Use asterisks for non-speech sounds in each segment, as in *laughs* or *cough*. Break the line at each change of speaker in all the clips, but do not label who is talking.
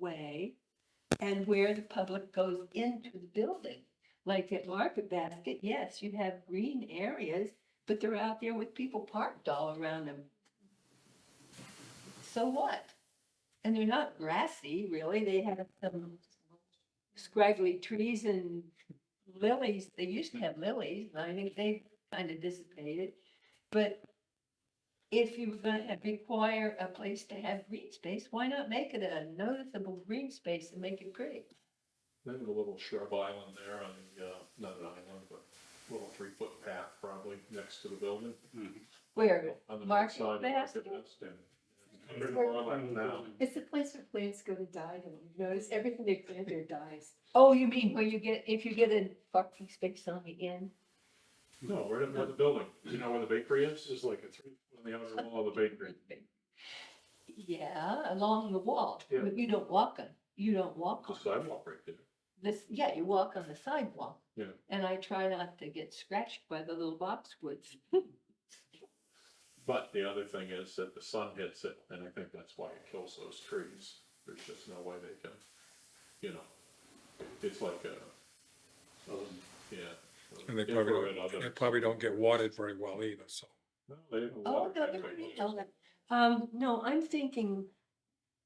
way and where the public goes into the building. Like at Market Basket, yes, you have green areas, but they're out there with people parked all around them. So what? And they're not grassy, really. They have some scraggly trees and lilies. They used to have lilies, and I think they kind of dissipated. But if you were gonna have- require a place to have green space, why not make it a noticeable green space and make it pretty?
Maybe a little shrub island there on the, uh, not an island, but a little three foot path probably next to the building.
Where,
On the north
Market
side of Market
basket?
Basket and- and uh, more island now.
It's the place where plants go to die. Have you noticed? Everything they plant there dies.
oh, you mean where you get, if you get a parking space on the end?
No, right up near the building. You know where the bakery is? There's like a three, on the outer wall of the bakery.
Yeah, along the wall,
Yeah.
but you don't walk on, you don't walk
The
on
sidewalk right there.
this, yeah, you walk on the sidewalk.
Yeah.
And I try not to get scratched by the little boxwoods.
But the other thing is that the sun hits it, and I think that's why it kills those trees. There's just no way they can, you know, it's like a, um, yeah.
And they probably
Infrared
don't, and they
oven.
probably don't get watered very well either, so.
No, they have a
Oh,
water
no,
tank
no,
right
no, no. Um, no, I'm thinking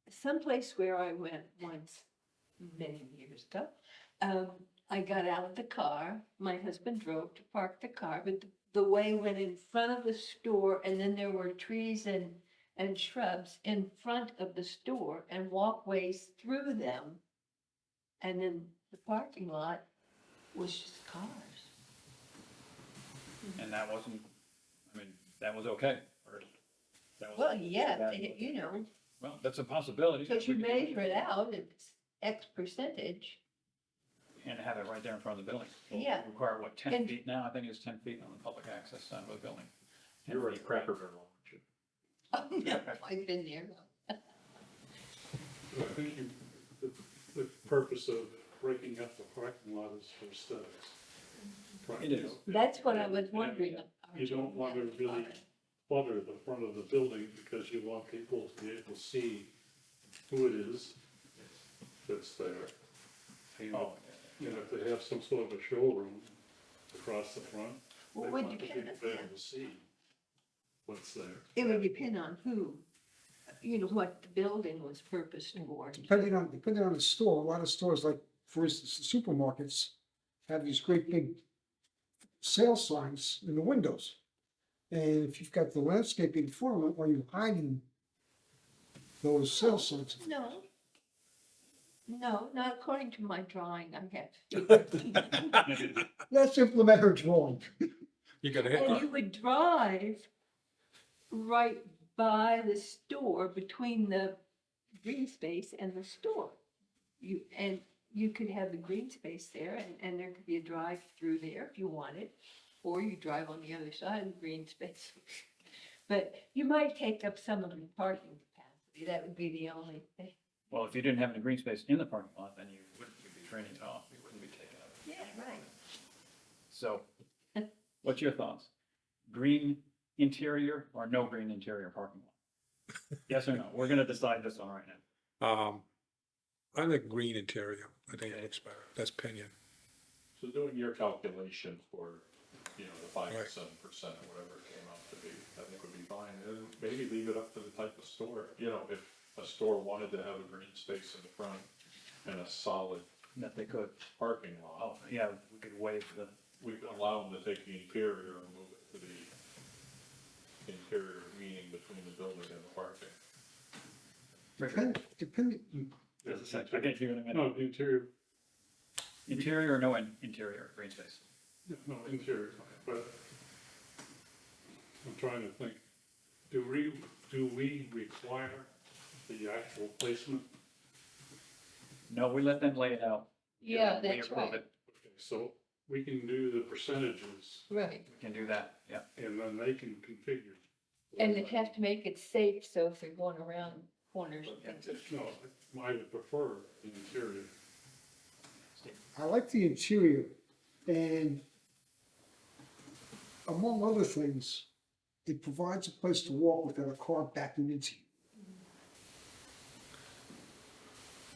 someplace where I went once, many years ago. Um, I got out of the car, my husband drove to park the car, but the- the way went in front of the store and then there were trees and, and shrubs in front of the store and walkways through them. And then the parking lot was just cars.
And that wasn't, I mean, that was okay. or that was-
Well, yeah,
that-
they- you know,
Well, that's a possibility.
Because you
We could-
measure it out, it's X percentage. *laughs*
And have it right there in front of the building. Well, we
Yeah.
Require what,
And-
ten feet now? I think it's ten feet on the public access side of the building.
You were in Cracker Barrel, weren't you?
Oh, no, I've been there.
I think you, the, the purpose of breaking up the parking lot is for aesthetics. Right,
It
you
is.
know,
That's what I was wondering.
You don't want to really clutter the front of the building because you want people to be able to see who it is that's there. You know,
Oh,
and if they have some sort of a showroom across the front, they
Well, It would
want the people
depend,
to be able to see what's there.
it would depend on who, you know, what the building was purposed for.
depending on, depending on the store, a lot of stores like, for instance, supermarkets have these great big sale signs in the windows. And if you've got the landscaping for them, are you hiding those sale signs?
No. No, not according to my drawing, I have.
*laughs*
*laughs*
yeah.
Let's implement her drawing.
You gotta
And you
hit,
would drive right by the store, between the green space and the store. You, and you could have the green space there and, and there could be a drive through there if you wanted. Or you drive on the other side of the green *laughs* space. But you might take up some of the parking capacity. That would be the only thing.
*laughs* Well, if you didn't have any green space in the parking lot, then you wouldn't you'd be draining it off. You wouldn't be taking it.
Yeah, right. *laughs*
So what's your thoughts? Green interior or no green interior parking lot? Yes or no? We're going to decide this one right now.
um, I like green interior, I think it looks better, that's opinion.
So doing your calculation for, you know, the five to
Right.
seven percent or whatever it came out to be, I think would be fine. And maybe leave it up to the type of store, you know, if a store wanted to have a green space in the front and a solid
That they could,
parking lot,
oh, yeah, we could waive the
we could allow them to take the interior and move it to the interior meaning between the building and the parking.
trigger.
Depend, depend,
There's a sec- I get you in a minute.
No, interior,
Interior or no in- interior green space?
No, interior, but I'm trying to think, do we, do we require the actual placement?
No, we let them lay it out.
Yeah,
and we
that's
approve
right.
it.
Okay, So we can do the percentages
Right.
We can do that, yeah.
and then they can configure.
And they have to make it safe, so if they're going around corners and things.
No, I would prefer the interior.
I like the interior and among other things, it provides a place to walk without a car backing into you.